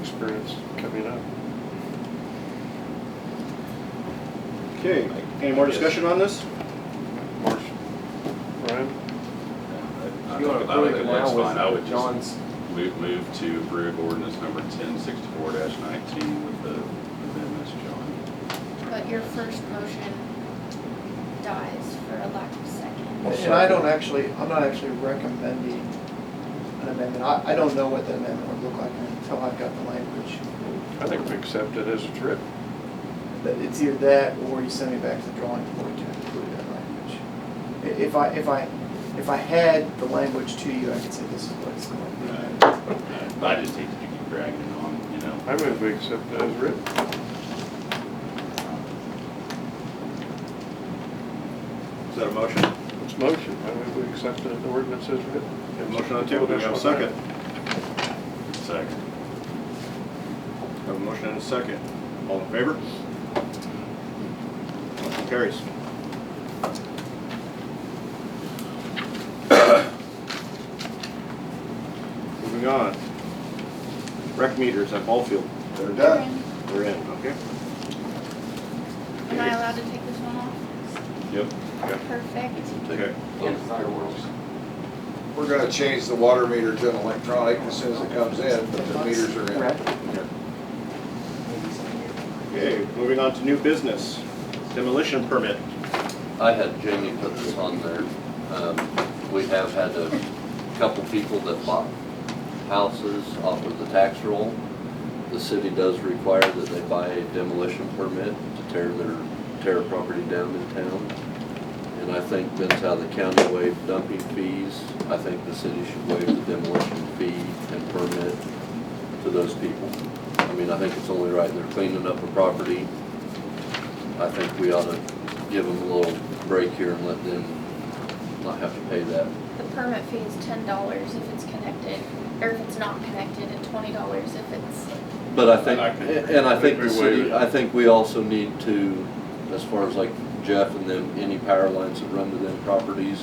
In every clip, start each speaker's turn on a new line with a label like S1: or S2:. S1: experience coming up.
S2: Okay, any more discussion on this?
S1: Marsh, Ryan,
S3: I
S4: You
S3: think
S4: want to
S3: I think
S4: approve it
S3: it
S4: now
S3: looks fine. I would
S4: with
S3: just
S4: John's,
S3: move, move to approve ordinance number ten sixty-four nineteen with the amendments, John.
S5: But your first motion dies for a lack of second.
S6: And I don't actually, I'm not actually recommending an amendment. I, I don't know what the amendment would look like until I've got the language.
S1: I think we accept it as it's written.
S6: But it's either that or you send me back to the drawing board to include that language. I- If I, if I, if I had the language to you, I could say this is what it's going to be.
S3: Uh, I just hate to keep dragging it on, you know.
S1: I move we accept it as written.
S2: Is that a motion?
S1: It's motion, I move we accept it, the ordinance as written.
S2: We have a motion on the table, do we have a second?
S3: Second.
S2: We Have a motion and a second. All in favor? Motion carries. Moving on. Rec meters at ball field. They're
S5: done.
S2: They're in, okay?
S5: Am I allowed to take this one off?
S2: Yep.
S5: Perfect.
S2: Okay.
S7: We're gonna change the water meter to an electronic as soon as it comes in, but the meters are in.
S6: Correct?
S2: Okay, moving on to new business. Demolition permit.
S8: I had Jamie put this on there. Um, We have had a couple people that bought houses off of the tax roll. The city does require that they buy a demolition permit to tear their, tear a property down in town. And I think that's how the county waived dumping fees. I think the city should waive the demolition fee and permit to those people. I mean, I think it's only right, they're cleaning up a property. I think we ought to give them a little break here and let them not have to pay that.
S5: The permit fee is ten dollars if it's connected, or if it's not connected, and twenty dollars if it's,
S8: But I think,
S3: I can-
S8: and I
S3: I think
S8: think the
S3: we waive
S8: city,
S3: it.
S8: I think we also need to, as far as like Jeff and them, any power lines that run to them properties,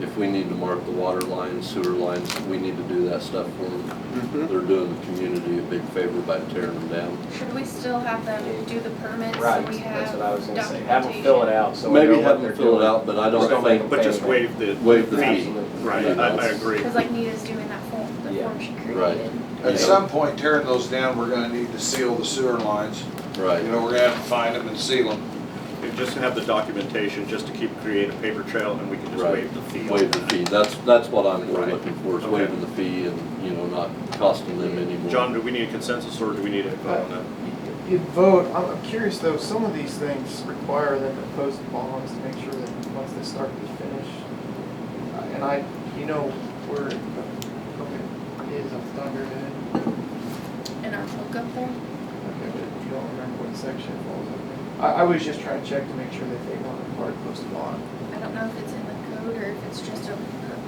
S8: if we need to mark the water lines, sewer lines, we need to do that stuff for them.
S3: Mm-hmm.
S8: They're doing the community a big favor by tearing them down.
S5: should we still have them do the permits? so
S4: right,
S5: we
S4: that's
S5: have
S4: what I was gonna say, have them fill it
S5: documentation?
S4: out, so we know
S8: Maybe
S4: what
S8: have
S4: they're
S8: them fill
S4: doing.
S8: it out, but I
S4: Just
S8: don't
S4: don't make
S8: think,
S4: them
S2: But just waive the.
S8: waive the fee.
S4: Absolutely.
S2: Right, I, I agree.
S5: Cause like Nita's doing that form, the
S4: Yeah.
S5: form she
S8: Right.
S5: created.
S8: Yeah.
S7: At some point, tearing those down, we're gonna need to seal the sewer lines. You
S8: Right,
S7: know, we're gonna have to find them and seal them.
S2: We Just have the documentation, just to keep, create a paper trail, and we can just
S8: Right.
S2: waive the fee. on
S8: waive the
S2: that.
S8: fee. That's, that's what I'm more
S2: Right.
S8: looking for, is
S2: Okay.
S8: waiving the fee and, you know, not costing them any more.
S2: John, do we need a consensus, or do we need a vote on that?
S6: You vote, I'm I'm curious though, some of these things require them to post bonds to make sure that once they start to finish. uh, And I, you know, where okay, it is off the top of your head.
S5: In our hookup there,
S6: Okay, but you don't remember what section it falls under. I, I was just trying to check to make sure that they weren't required to post a bond.
S5: I don't know if it's in the code or if it's just a per-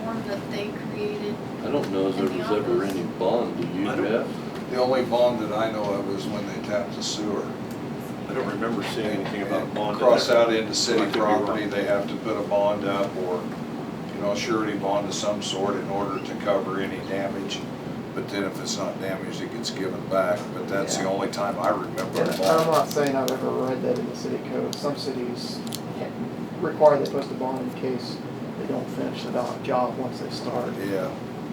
S5: form that they created.
S8: I don't know if there
S5: In the
S8: was ever
S5: office.
S8: any bond, do you,
S2: I don't-
S8: Jeff?
S7: The only bond that I know of was when they tapped the sewer.
S2: I don't remember seeing anything about a bond. in
S7: Cross
S2: there.
S7: out into
S2: I
S7: city
S2: could be wrong.
S7: property, they have to put a bond up or, you know, a surety bond of some sort in order to cover any damage. But then if it's not damaged, it gets given back, but that's the
S6: Yeah.
S7: only time I remember a
S6: And
S7: bond.
S6: I'm not saying I've ever read that in the city code. Some cities require they post a bond in case they don't finish the do- job once they start.
S7: Yeah.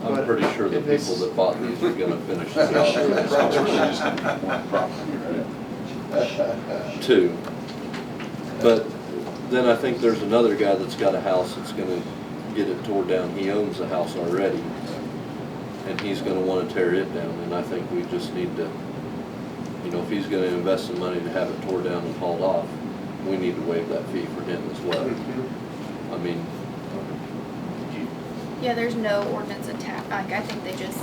S8: I'm
S6: But
S8: pretty sure the
S6: if it's-
S8: people that bought these are gonna finish the job. Two. But then I think there's another guy that's got a house that's gonna get it tore down. He owns the house already. And he's gonna wanna tear it down, and I think we just need to, you know, if he's gonna invest some money to have it tore down and hauled off, we need to waive that fee for him as well. I mean,
S5: Yeah, there's no ordinance attached, like, I think they just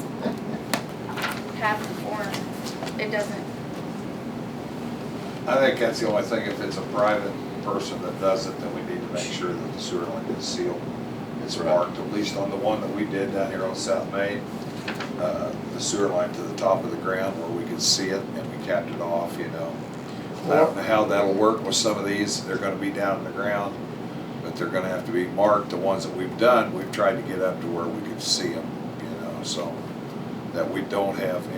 S5: have the form, it doesn't,
S7: I think that's the only thing, if it's a private person that does it, then we need to make sure that the sewer line is sealed. It's marked, at least on the one that we did down here on South Main, uh, the sewer line to the top of the ground where we could see it and we capped it off, you know. I don't know how that'll work with some of these, they're gonna be down in the ground, but they're gonna have to be marked, the ones that we've done, we've tried to get up to where we could see them, you know, so that we don't have